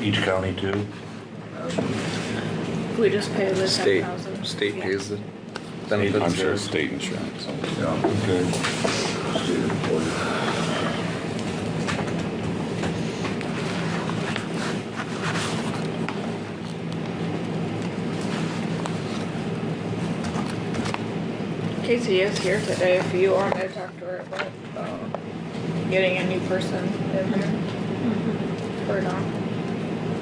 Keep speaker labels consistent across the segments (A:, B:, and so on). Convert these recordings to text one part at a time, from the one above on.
A: each county too?
B: We just pay the ten
C: State,
B: thousand.
C: state pays the
A: I'm
C: benefits
A: sure
C: there.
A: it's state insurance.
D: Yeah,
A: Okay.
D: state employee.
B: Casey is here today if you want to talk to her about, um, getting a new person in here. Or not.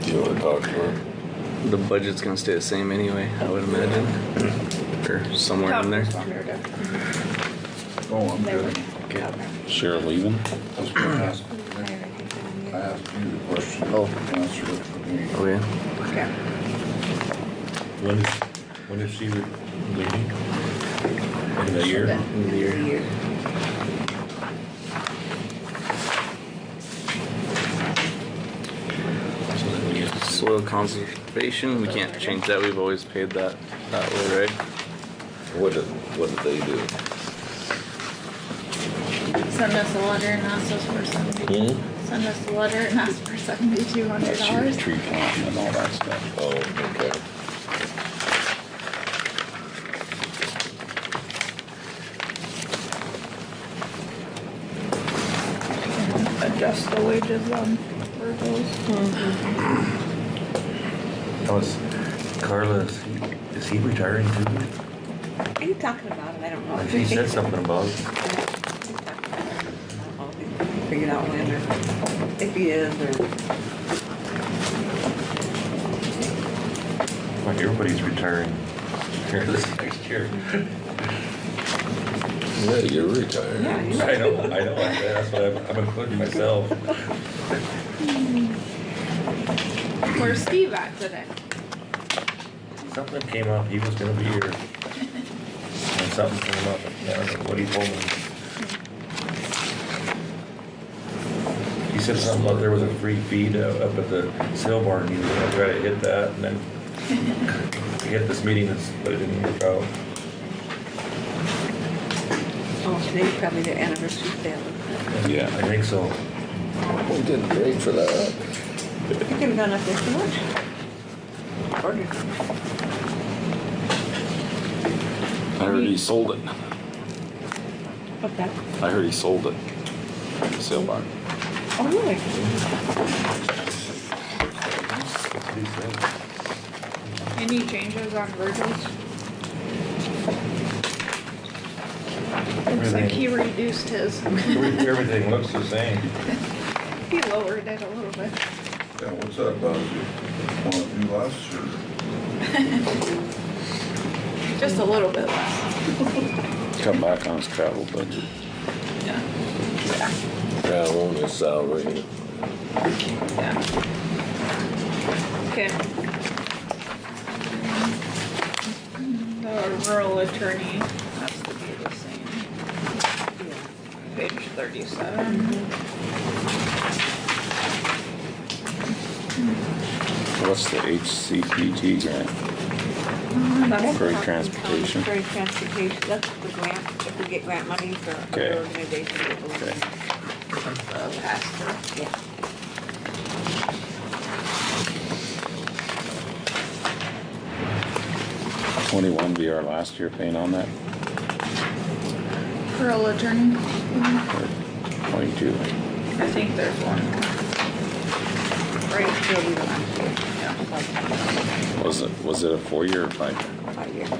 A: Do you wanna talk to her?
C: The budget's gonna stay the same anyway, I would imagine,
E: Mm-hmm.
C: or somewhere in there.
B: Talk to her to-
D: Oh, I'm
B: They were-
D: good.
C: Okay.
A: Cheryl leaving?
D: Just gonna ask, I asked you the question.
C: Oh.
D: Answer it for me.
C: Okay.
B: Okay.
A: When is, when is she leaving? In a year?
C: in the year.
A: So then we get to-
C: Soil conservation, we can't change that, we've always paid that, that way, right?
F: What did, what did they do?
B: Send us a letter and ask us for seventy,
F: Hmm?
B: send us a letter and ask for seventy-two hundred
A: That's your
B: dollars.
A: tree planting and all that stuff.
F: Oh, okay.
B: Adjust the wages on Virgil's.
A: That was, Carla, is he, is he retiring too?
G: Are you talking about it? I don't know.
A: She said something about it.
G: Figured out when or if he is or.
A: Like everybody's retiring here this next year.
F: Yeah, you're retired.
G: Yeah, you-
A: I know, I know, that's what I'm, I'm including myself.
B: Where's Steve at today?
A: Something came up, he was gonna be here. And something came up, I don't know what he told me. He said something about there was a free feed uh, up at the sale barn, he was gonna try to hit that and then he hit this meeting, but it didn't work out.
G: Oh, today's probably their anniversary sale.
A: Yeah. I think so.
F: We did great for that.
G: You could have gone up there for lunch. Ordered.
E: I heard he sold it.
G: What's that?
E: I heard he sold it. The sale barn.
G: Oh, really?
B: Any changes on Virgil's? Looks like he reduced his,
A: Everything looks the same.
B: he lowered it a little bit.
D: Yeah, what's that about you? Wanna do last year?
B: Just a little bit less.
E: Cut back on his travel budget.
B: Yeah.
F: Yeah, on his salary.
B: Yeah. Okay. The rural attorney has to be the same, page thirty-seven.
E: What's the HCPG grant?
B: That's
E: For
B: not-
E: transportation.
G: For transportation, that's the grant, if we get grant money for
E: Okay.
G: other organizations. it will-
E: Okay.
B: uh, passed.
G: Yeah.
E: Twenty-one be our last year paying on that,
B: Rural attorney,
E: or twenty-two?
B: I think there's one.
G: Right, so we don't have to.
E: Was it, was it a four-year or five?
G: Five years.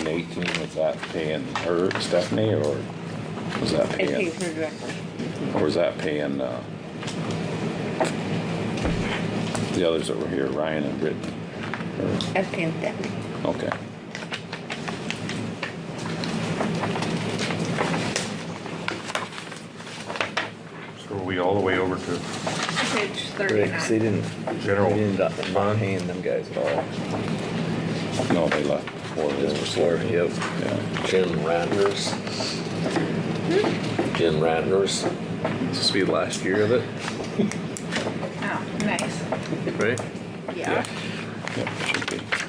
E: In eighteen, was that paying her, Stephanie, or was that
G: It
E: paying,
G: pays her directly.
E: or was that paying, uh, the others that were here, Ryan and Brittany? Or-
G: That's paying Stephanie.
E: Okay.
A: So are we all the way over to
B: Page
C: Right, 'cause they
B: thirty-nine.
C: didn't,
A: General
C: they didn't up
A: fund?
C: paying them guys at all.
E: No, they left before
F: Just
E: this.
F: before, yep.
E: Yeah,
F: Jim Ratner's. Jim Ratner's.
C: Hmm. This will be the last year of it,
B: Oh, nice.
C: right?
B: Yeah.
E: yeah, should be.